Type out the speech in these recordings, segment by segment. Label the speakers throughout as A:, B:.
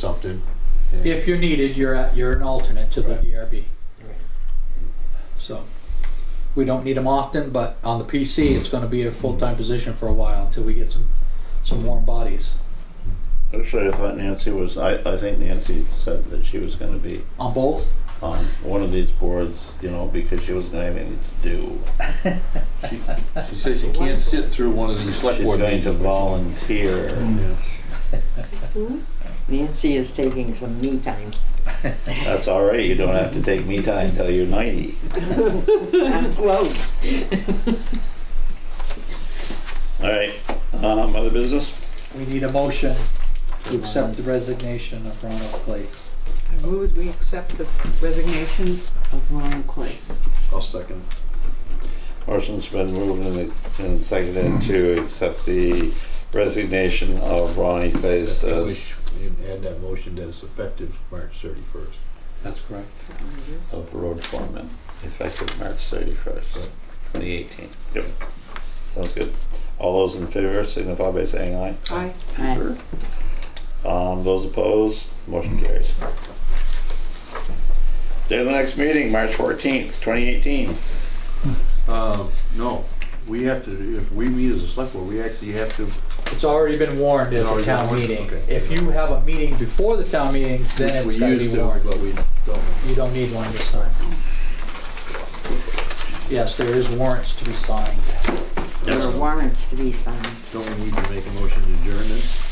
A: accepted.
B: If you're needed, you're, a- you're an alternate to the
A: Right.
B: DRB.
C: Right.
B: So, we don't need them often, but on the PC, it's gonna be a full-time position for a while until we get some, some warm bodies
D: Actually, I thought Nancy was, I, I think Nancy said that she was gonna be
B: on both.
D: on one of these boards, you know, because she wasn't gonna have anything to do.
A: She says she can't sit through one of these select
D: She's
A: board
D: going
A: meetings.
D: to volunteer.
A: Yeah.
C: Nancy is taking some me time.
D: That's all right, you don't have to take me time until you're ninety.
C: I'm close.
D: All right, um, other business?
B: We need a motion to accept the resignation of Ronald Place.
E: I move we accept the resignation of Ronald Clace.
A: I'll second.
D: Motion's been moved and, and seconded to accept the resignation of Ronnie Place
A: I
D: as,
A: wish we'd Add that motion that it's effective March thirty-first.
B: That's correct.
D: of road foreman, effective March thirty-first, twenty eighteen. Yep, sounds good. All those in favor signify by saying aye.
E: Aye.
C: Aye.
D: Um, those opposed, motion carries. Day of the next meeting, March fourteenth, twenty eighteen.
A: Um, no, we have to, if we meet as a select board, we actually have to,
B: It's already been warned
A: It's
B: as a
A: already been
B: town
A: warned?
B: meeting.
A: Okay.
B: If you have a meeting before the town meeting, then
A: we
B: it's gotta be
A: used to,
B: warned.
A: but we don't.
B: You don't need one this time. Yes, there is warrants to be signed.
C: There are warrants to be signed.
A: Don't we need to make a motion to adjourn this?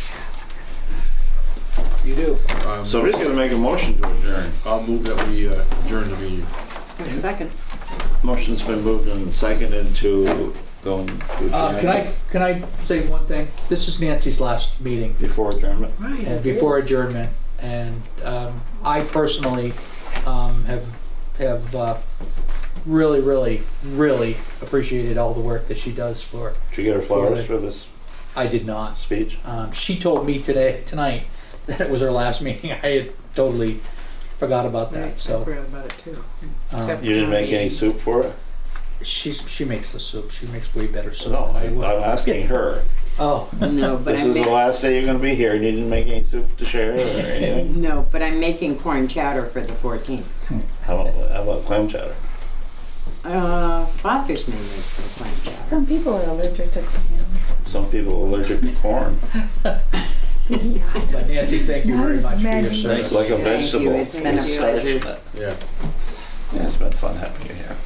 B: You do.
A: Um,
D: Somebody's gonna make a motion to adjourn.
A: I'll move that we uh, adjourn the meeting.
E: Second.
D: Motion's been moved and seconded to go and do
B: Uh, can I,
D: adjournment.
B: can I say one thing? This is Nancy's last meeting
D: Before adjournment?
B: and before adjournment. And, um, I personally, um, have, have, uh, really, really, really appreciated all the work that she does for,
D: Did you get her flowers for this
B: I did not.
D: speech?
B: Um, she told me today, tonight, that it was her last meeting. I had totally forgot about
E: Right, I
B: that, so.
E: forgot about it too.
B: um,
E: Except-
D: You didn't make any soup for it?
B: She's, she makes the soup. She makes way better soup
D: No,
B: than
D: I-
B: I
D: I'm
B: would.
D: asking her.
B: Oh,
C: No, but
D: This
C: I'm,
D: is the
C: ma-
D: last day you're gonna be here and you didn't make any soup to share or anything?
C: no, but I'm making corn chowder for the 14th.
D: How about, how about clam chowder?
C: Uh, Father's may make some corn chowder.
F: Some people are allergic to clam.
D: Some people are allergic to corn.
B: but Nancy, thank you very much for your
F: Many.
B: service.
D: It's like a
C: Thank you,
D: vegetable.
C: it's been a
D: It's starch in
C: pleasure.
D: it.
A: Yeah.
D: Yeah, it's been fun having you here.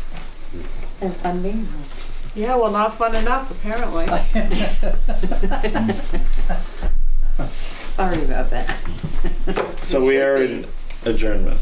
C: It's been fun being here.
E: Yeah, well, not fun enough, apparently.
C: Sorry about that.
D: So we are in adjournment.